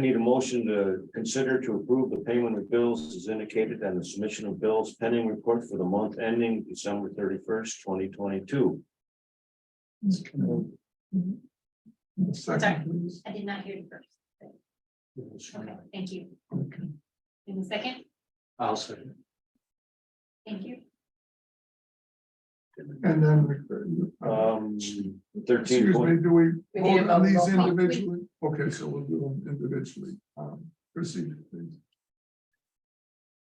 I need a motion to consider to approve the payment of bills as indicated on the submission of bills pending report for the month ending December thirty first, twenty twenty two. Sorry. Second. I did not hear you first. Mm-hmm. Okay, thank you. In a second, I'll second. thank you. And then. uh, Um, thirteen Excuse me, point, do we We need a vote on vote, these roll call. individually? Okay, so we'll do them individually. Um, Proceed. please.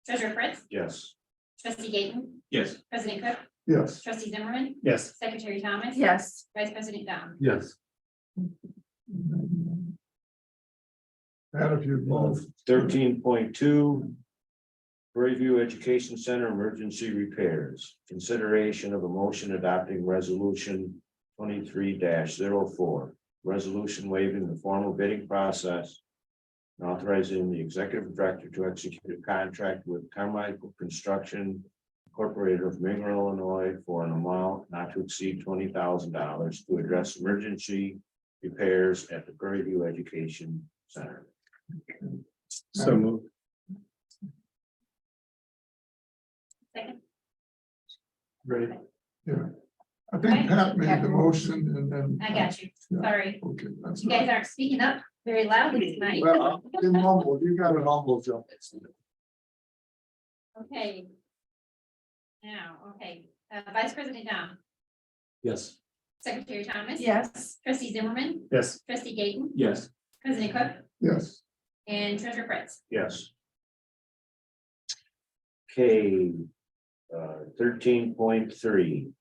Treasurer Fritz, yes. trustee Gaten, Yes. president Cook, Yes, trustee Zimmerman, Yes. secretary Thomas. Yes, Vice president Dom. Yes. Pat, if you'd move. Thirteen point two. Prairie View Education Center Emergency Repairs, consideration of a motion adopting resolution twenty-three 4 Resolution waiving the formal bidding process. and Authorizing the executive director to execute a contract with Carmichael Construction Incorporated of Mineral, Illinois for an amount not to exceed twenty thousand dollars to address emergency repairs at the Prairie View Education Center. So moved. Second, Ready? I think Pat made the motion and then. I got you, sorry. Okay, that's. You guys aren't speaking up very loudly tonight. Well, Uh, in humble, you got an humble job. Okay. Now, okay, uh, vice president Dom, Yes. secretary Thomas. yes. Trustee Zimmerman, Yes. trustee Gaten, Yes. president Cook, Yes, and treasurer Fritz. Yes. K, uh, thirteen point three.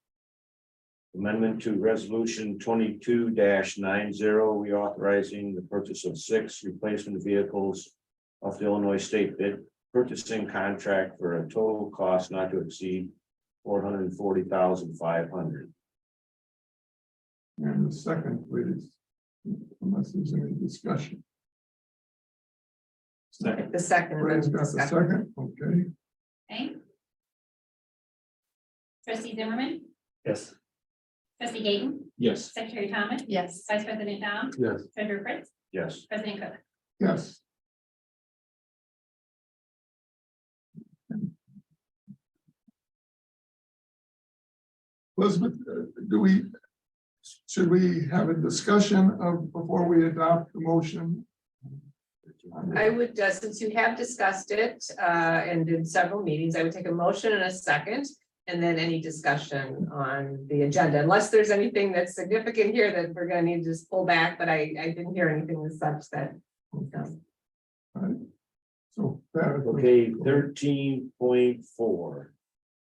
Amendment to resolution twenty-two nine zero, reauthorizing the purchase of six replacement vehicles. Of the Illinois State bid purchasing contract for a total cost not to exceed four hundred and forty thousand five hundred. and the second, please. Unless there's any discussion. Second. The second. Ray's got the second, okay. Okay. Trustee Zimmerman, Yes. trustee Gaten, Yes. secretary Thomas, Yes. vice president Dom, Yes. treasurer Fritz, Yes, president Cook. Yes. Elizabeth, uh, do we, should we have a discussion of, before we adopt the motion? I would, uh, since you have discussed it, uh, and in several meetings, I would take a motion and a second. And then any discussion on the agenda, unless there's anything that's significant here that we're gonna need to just pull back, but I, I didn't hear anything as such that. Okay. All right. So. that is- Okay, thirteen point four.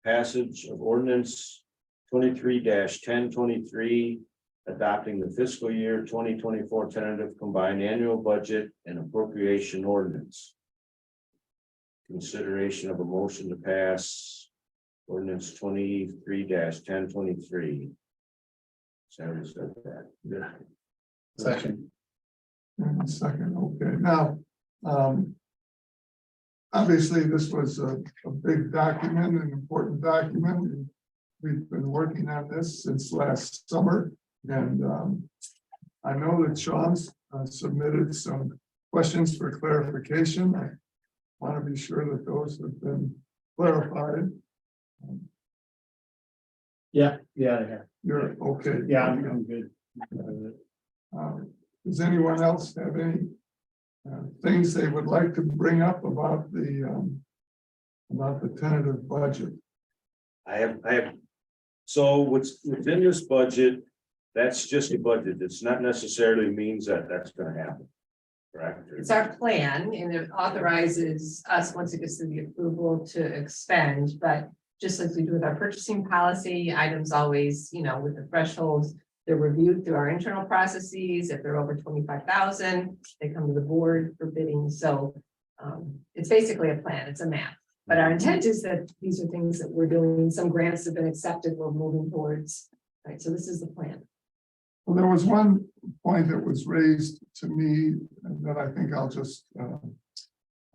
Passage of ordinance twenty-three ten twenty-three. Adopting the fiscal year twenty twenty-four tentative combined annual budget and appropriation ordinance. Consideration of a motion to pass ordinance twenty-three ten twenty-three. Sarah said that. Yeah. Second. And a second, okay, now, um. Obviously, this was a, a big document, an important document. and We've been working on this since last summer and, um. I know that Sean's uh, submitted some questions for clarification. I want to be sure that those have been clarified. Yeah, yeah, yeah. You're okay. Yeah, I'm, I'm good. Uh, Um, Does anyone else have any uh, things they would like to bring up about the um, about the tentative budget? I have, I have. So what's within this budget, that's just a budget. It's not necessarily means that that's gonna happen. Correct? It's our plan and it authorizes us, once it gets to the approval, to expend, but just like we do with our purchasing policy, items always, you know, with the thresholds. They're reviewed through our internal processes. If they're over twenty-five thousand, they come to the board for bidding, so. Um, it's basically a plan, it's a map, but our intent is that these are things that we're doing, some grants have been accepted, we're moving towards. Right, so this is the plan. Well, there was one point that was raised to me that I think I'll just uh,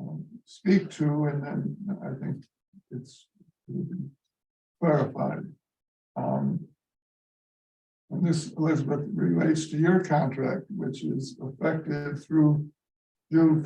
um, speak to, and then I think it's clarified. Um, And this, Elizabeth, relates to your contract, which is effective through June